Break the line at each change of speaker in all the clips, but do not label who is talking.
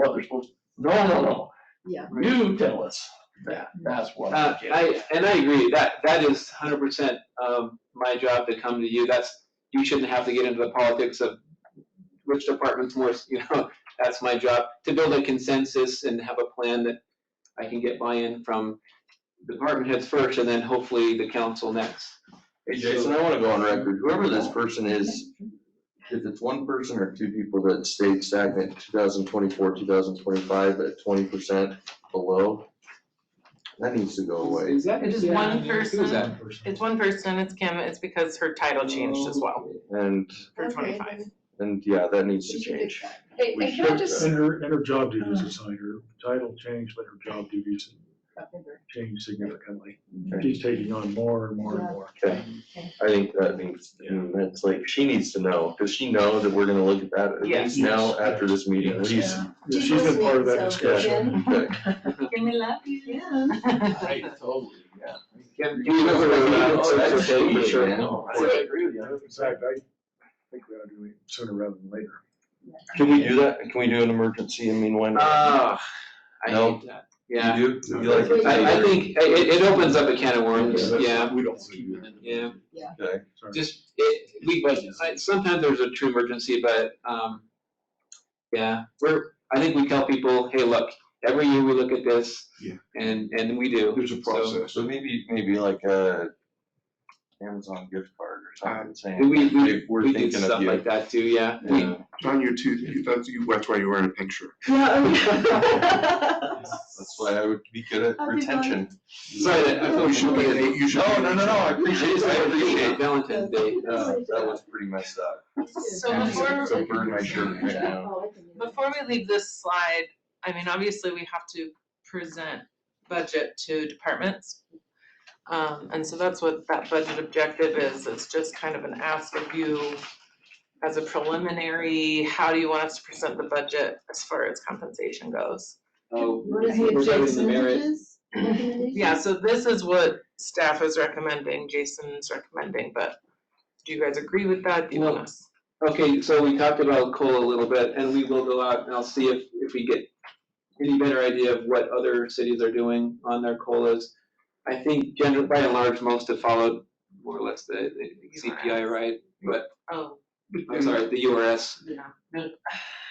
what they're supposed, no, no, no.
Yeah.
You tell us that, that's what.
Uh, I, and I agree, that, that is hundred percent of my job to come to you, that's, you shouldn't have to get into the politics of which department's more, you know, that's my job, to build a consensus and have a plan that I can get buy-in from department heads first, and then hopefully the council next.
Hey Jason, I wanna go on record, whoever this person is, if it's one person or two people that stayed stagnant two thousand twenty-four, two thousand twenty-five at twenty percent below, that needs to go away.
Is that?
It is
yeah,
one
who is
person.
that?
It's one person, it's Kim, it's because her title changed as well
And,
for
Okay.
twenty-five.
and yeah, that needs to
We can fix
change.
that.
Hey,
We
and can I
should, uh,
just,
And her, and her job
Uh-huh.
duties assigned, her title changed, but her job duties changed significantly. She's taking on more and more and more.
Okay, I think that needs, and that's like, she needs to know, does she know that we're gonna look at that at
Yes.
least now after this meeting, at least?
Yeah.
She's been part of that discussion.
Okay.
Can we love you? Yeah.
I totally, yeah.
Can-
You know,
Oh, it's
that's
okay,
cheating,
sure.
man.
No, I agree with you.
In fact, I think we ought to do it sooner rather than later.
Can we do that? Can we do an emergency? I mean, when?
Ah, I
No.
hate that, yeah,
You do? You like it?
I, I think, it- it, it opens up a can of worms,
Yeah, that's-
yeah.
We don't.
Keep it in the-
Yeah.
Okay.
Sorry.
just, it, we, I- sometimes there's a true emergency, but, um, yeah, we're, I think we tell people, hey, look, every year we look at this.
Yeah.
And, and we do.
There's a
So,
process.
So maybe, maybe like a Amazon gift card or something
We,
saying,
we,
"Hey,
we,
we're
do
thinking of
stuff
you.
like that too, yeah. We-
Yeah.
John, you're too, that's, you- that's why you're wearing a pink shirt.
That's why I would be good at
Happy
retention.
Sorry, that- I thought Oh,
You should be, an- you should.
No,
be-
no, no, no, I appreciate it, I appreciate it.
Valentine's Day.
Uh, That was pretty messed up.
So
And
before-
It's a burn my shirt right now.
Before we leave this slide, I mean, obviously, we have to present budget to departments. Um, and so that's what that budget objective is, it's just kind of an ask of you as a preliminary, how do you want us to present the budget as far as compensation goes?
Oh,
What is
we're
the
doing the merit.
percentages? Recommendations?
Yeah, so this is what staff is recommending, Jason's recommending, but do you guys agree with that? Do you want
No.
us?
Okay, so we talked about coal a little bit, and we will go out and I'll see if, if we get any better idea of what other cities are doing on their colas. I think generally, by and large, most have followed more or less the, the CPI, right? But,
Oh,
I'm sorry, the URS.
yeah.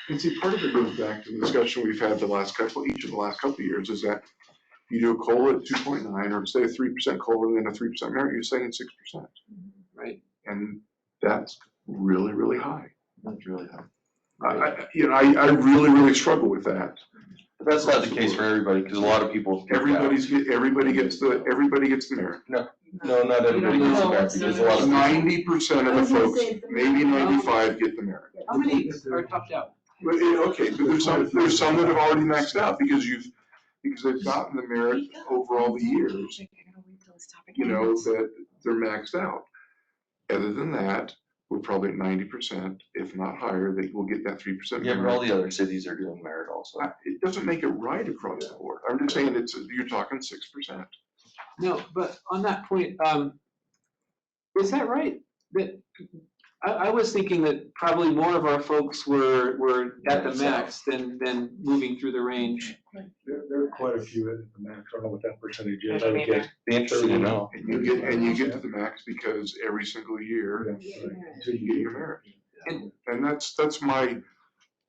And see, part of it goes back to the discussion we've had the last couple, each of the last couple of years, is that you do a COLA at two point nine, or say a three percent COLA and a three percent merit, you're saying six percent.
Right.
And that's really, really high.
That's really hard.
I, I, you know, I, I really, really struggle with that.
But that's not the case for everybody, because a lot of people. think that.
Everybody's, get- everybody gets the, everybody gets the merit.
No, not everybody
No,
gets it back,
it's not
because a lot of.
Ninety percent of
I
the
was gonna
folks,
say, it's the
maybe
merit.
ninety-five get the merit.
How many are topped out?
But, eh, okay, but there's some, there's some that have already maxed out because you've, because they've gotten the merit over all the years, you know, that they're maxed out. Other than that, we're probably at ninety percent, if not higher, that will get that three percent
Yeah, but all
merit.
the other cities are doing merit also.
I- It doesn't make it right across the board. I'm just saying it's, you're talking six percent.
No, but on that point, um, is that right? That, I, I was thinking that probably more of our folks were, were at the
Maxed out.
max than, than moving through the range.
There, there are quite a few at the max. I don't know what that percentage
I
is.
don't
I would guess
Be interesting to know.
And you get, and you get to the max because every single year
Yeah, right.
until you get your merit.
And-
And that's, that's my,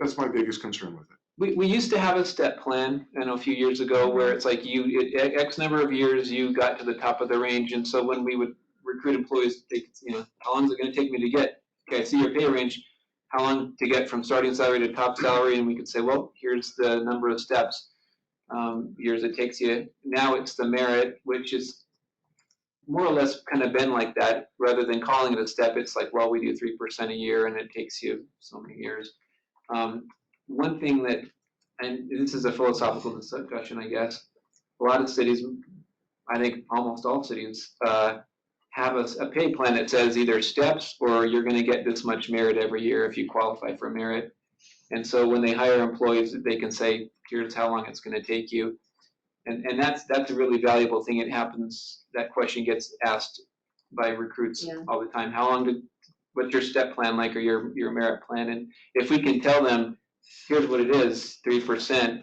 that's my biggest concern with it.
We, we used to have a step plan, I know a few years ago, where it's like you, it- X number of years, you got to the top of the range, and so when we would recruit employees, they, could, you know, how long is it gonna take me to get, okay, I see your pay range, how long to get from starting salary to top salary, and we could say, well, here's the number of steps, um, years it takes you. Now it's the merit, which is more or less kind of been like that, rather than calling it a step, it's like, well, we do three percent a year, and it takes you so many years. Um, one thing that, and this is a philosophical discussion, I guess, a lot of cities, I think almost all cities, uh, have a, s- a pay plan that says either steps or you're gonna get this much merit every year if you qualify for merit. And so when they hire employees, they can say, here's how long it's gonna take you. And, and that's, that's a really valuable thing. It happens, that question gets asked by recruits
Yeah.
all the time. How long did, what's your step plan like or your, your merit plan? And if we can tell them, here's what it is, three percent,